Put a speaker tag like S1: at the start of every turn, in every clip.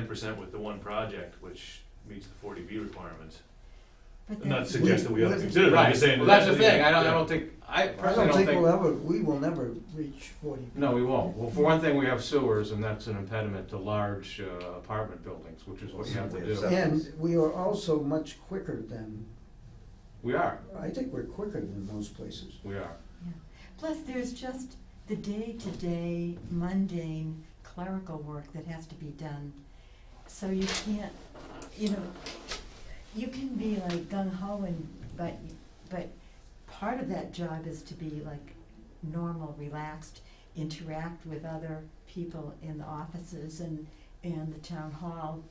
S1: ten percent with the one project, which meets the forty B requirements.
S2: But
S1: I'm not
S2: that's-
S1: suggesting we ought to
S2: we-
S1: consider it, I'm just saying.
S3: Well, that's the
S1: that-
S3: thing, I don't, I
S1: yeah.
S3: don't think, I
S2: I
S3: personally
S2: don't think we'll
S3: don't think,
S2: ever, we will never reach forty.
S3: no, we won't. Well, for one thing, we have sewers, and that's an impediment to large uh, apartment buildings, which is what you have to do.
S2: And we are also much quicker than,
S3: We are,
S2: I think we're quicker than most places.
S3: we are.
S4: Yeah. Plus, there's just the day-to-day mundane clerical work that has to be done. So you can't, you know, you can be like gung ho and, but, but part of that job is to be like normal, relaxed, interact with other people in the offices and, and the town hall.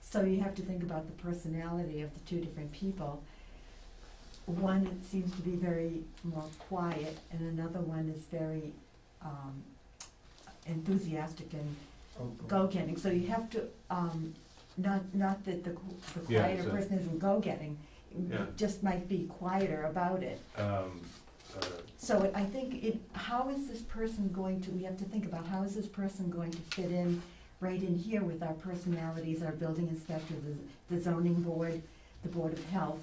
S4: So you have to think about the personality of the two different people one that seems to be very more quiet, and another one is very um, enthusiastic and go-getting. So you have to, um, not, not that the qu- the
S3: Yeah,
S4: quieter
S3: so-
S4: person isn't go-getting,
S1: Yeah.
S4: just might be quieter about it.
S3: Um, uh,
S4: So it- I think it, how is this person going to, we have to think about, how is this person going to fit in right in here with our personalities, our building inspector, the, the zoning board, the board of health,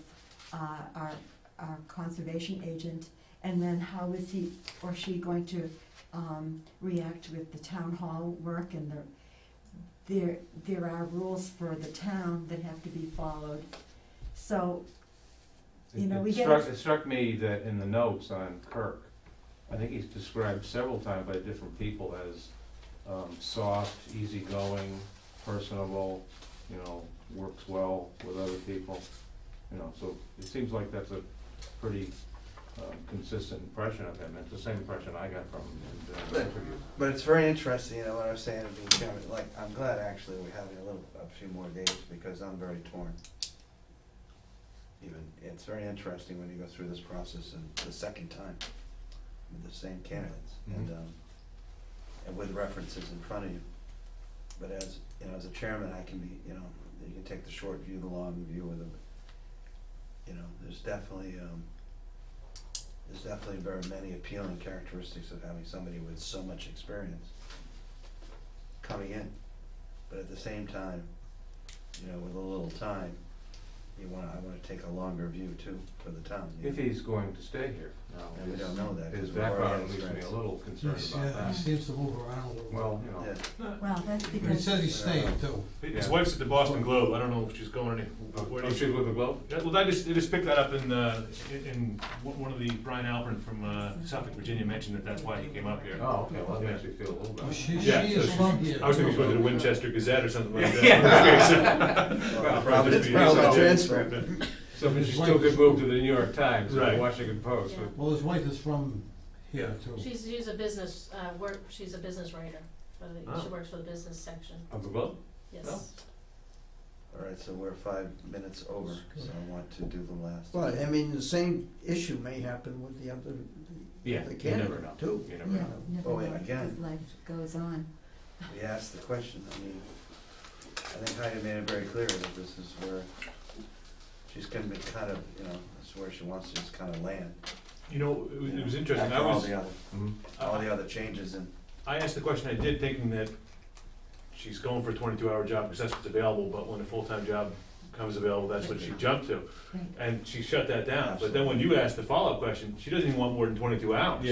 S4: uh, our, our conservation agent, and then how is he or she going to, um, react with the town hall work and the, there, there are rules for the town that have to be followed. So, You know,
S3: it-
S4: we
S3: It
S4: get-
S3: struck, it struck me that in the notes on Kirk, I think he's described several times by different people as um, soft, easygoing, personable, you know, works well with other people, you know, so it seems like that's a pretty um, consistent impression of him, it's the same impression I got from him in the interview.
S5: But it's very interesting, you know, what I was saying, being chairman, like, I'm glad actually we're having a little, a few more days, because I'm very torn. Even, it's very interesting when you go through this process and the second time, with the same candidates, and,
S3: Mhm.
S5: um, and with references in front of you. But as, you know, as a chairman, I can be, you know, you can take the short view, the long view, or the, you know, there's definitely, um, there's definitely very many appealing characteristics of having somebody with so much experience coming in. But at the same time, you know, with a little time, you want, I wanna take a longer view too for the town. you
S3: If
S5: know.
S3: he's going to stay here,
S5: And we don't
S3: now,
S5: know that.
S3: his, his
S5: 'cause we've already had
S3: background leaves me a
S5: strikes.
S3: little concerned
S6: Yes,
S3: about
S6: yeah, he
S3: that.
S6: seems to move around a little bit.
S3: Well, you know.
S5: Yeah.
S4: well, that's
S5: But it
S4: because.
S6: But he says he's staying too.
S1: His
S3: Yeah.
S1: wife's at the Boston Globe, I don't know if she's going any,
S3: Oh,
S1: where
S3: oh,
S1: do you-
S3: she's with the Globe?
S1: Yeah, well, I just, I just picked that up in, uh, in- in, one one of the, Brian Alpern from uh, Suffolk, Virginia mentioned that that's why he came up here.
S3: Oh, okay, well, that makes me feel a little
S6: Well,
S3: better.
S6: She, she
S1: Yeah, so
S6: is from here.
S1: I was thinking it was to the Winchester Gazette or something like that.
S5: Well,
S3: Probably
S5: probably-
S3: just
S5: It's
S3: be-
S5: probably
S3: so-
S5: a transfer.
S3: So but she still could move to the New York Times or
S1: Right.
S3: the Washington Post. but-
S6: Well, his wife is from here too.
S7: She's, she's a business, uh, work, she's a business writer, for the-
S1: Oh.
S7: she works for the business section,
S3: Of the Globe? Oh.
S7: yes.
S5: All right, so we're five minutes over, so I want to do the last.
S2: Well, I mean, the same issue may happen with the other, the
S3: Yeah,
S2: other
S3: you never
S2: candidate
S3: know.
S2: too.
S3: You never
S4: Yeah,
S3: know.
S4: never
S5: Oh, wait,
S4: know,
S5: again.
S4: because life goes on.
S5: We asked the question, I mean, I think Heidi made it very clear that this is where she's gonna be kind of, you know, that's where she wants to just kind of land.
S1: You know, it was,
S5: you
S1: it
S5: know,
S1: was interesting, I
S5: After all
S1: was,
S5: the other,
S3: Mhm.
S5: all the other changes and
S1: I asked the question I did thinking that she's going for a twenty-two hour job because that's what's available, but when a full-time job comes available, that's what she jumped to.
S4: Right.
S1: And she shut that down, but then when you asked the follow-up question, she doesn't even want more than twenty-two hours.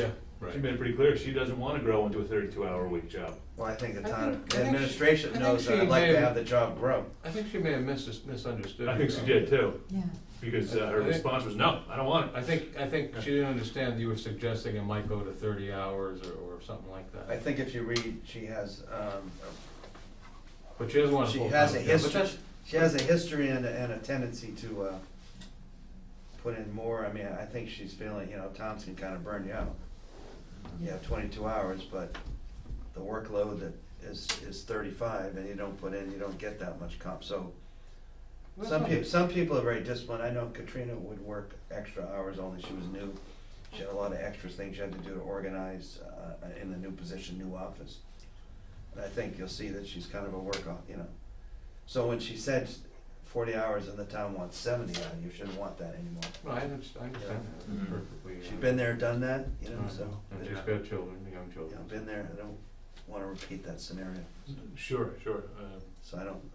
S1: She made it pretty clear, she doesn't wanna grow into a thirty-two hour week job.
S5: Well, I think the
S3: I think-
S5: town
S3: I think she- I
S5: administration
S3: think
S5: knows that
S3: she
S5: I'd like
S3: may
S5: to
S3: have-
S5: have the job grow.
S3: I think she may have mis- misunderstood.
S1: I think
S3: you,
S1: she
S3: though.
S1: did too,
S4: Yeah,
S1: because uh, her
S3: I think-
S1: response was, no, I don't want it.
S3: I think, I think she didn't understand that you were suggesting it might go to thirty hours or, or something like
S5: I
S3: that.
S5: think if you read, she has, um,
S3: But she doesn't want a
S5: She
S3: full-time
S5: has a
S3: job, but
S5: history.
S3: that's-
S5: she has a history and, a- and a tendency to, uh, put in more, I mean, I think she's feeling, you know, towns can kind of burn you out. You have twenty-two hours, but the workload that is, is thirty-five and you don't put in, you don't get that much comp, so.
S3: that's
S5: Some
S3: not-
S5: people, some people are very disciplined, I know Katrina would work extra hours, only she was new, she had a lot of extra things she had to do to organize, uh, in the new position, new office. And I think you'll see that she's kind of a work, you know, so when she said forty hours and the town wants seventy, uh, you shouldn't want that anymore.
S3: No, I understand, I understand that
S1: Mhm.
S3: perfectly. uh,
S5: She's been there, done that, you
S3: I
S5: know,
S3: know.
S5: so,
S3: And
S5: you
S3: she's got children, young
S5: know,
S3: children.
S5: been there, I don't,
S1: wanna repeat that scenario,
S5: Sure, sure. Um,
S1: so I don't,